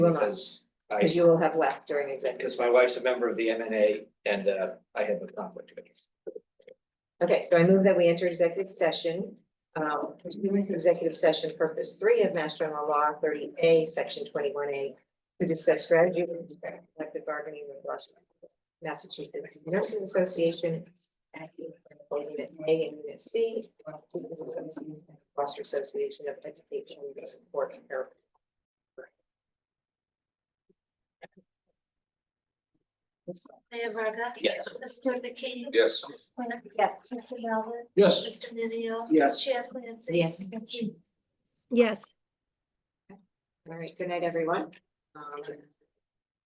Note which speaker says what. Speaker 1: will not,
Speaker 2: because I,
Speaker 1: because you will have left during executive.
Speaker 2: because my wife's a member of the M and A and uh, I have a conflict of interest.
Speaker 1: Okay, so I move that we enter executive session. Um, pursuant to executive session purpose three of Master General Law thirty A, section twenty-one A. To discuss strategy with respect to collective bargaining with Washington, Massachusetts Nurses Association. Acting for unit A and unit C. Foster Association of Education and Support. Care.
Speaker 3: Mayor Verga.
Speaker 2: Yes.
Speaker 3: Mr. McKee.
Speaker 4: Yes.
Speaker 3: Yes. Mr. Melvin.
Speaker 4: Yes.
Speaker 3: Mr. Minio.
Speaker 4: Yes.
Speaker 3: Chair Clancy.
Speaker 1: Yes.
Speaker 3: Mr.
Speaker 5: Yes.
Speaker 1: All right, good night, everyone. Um,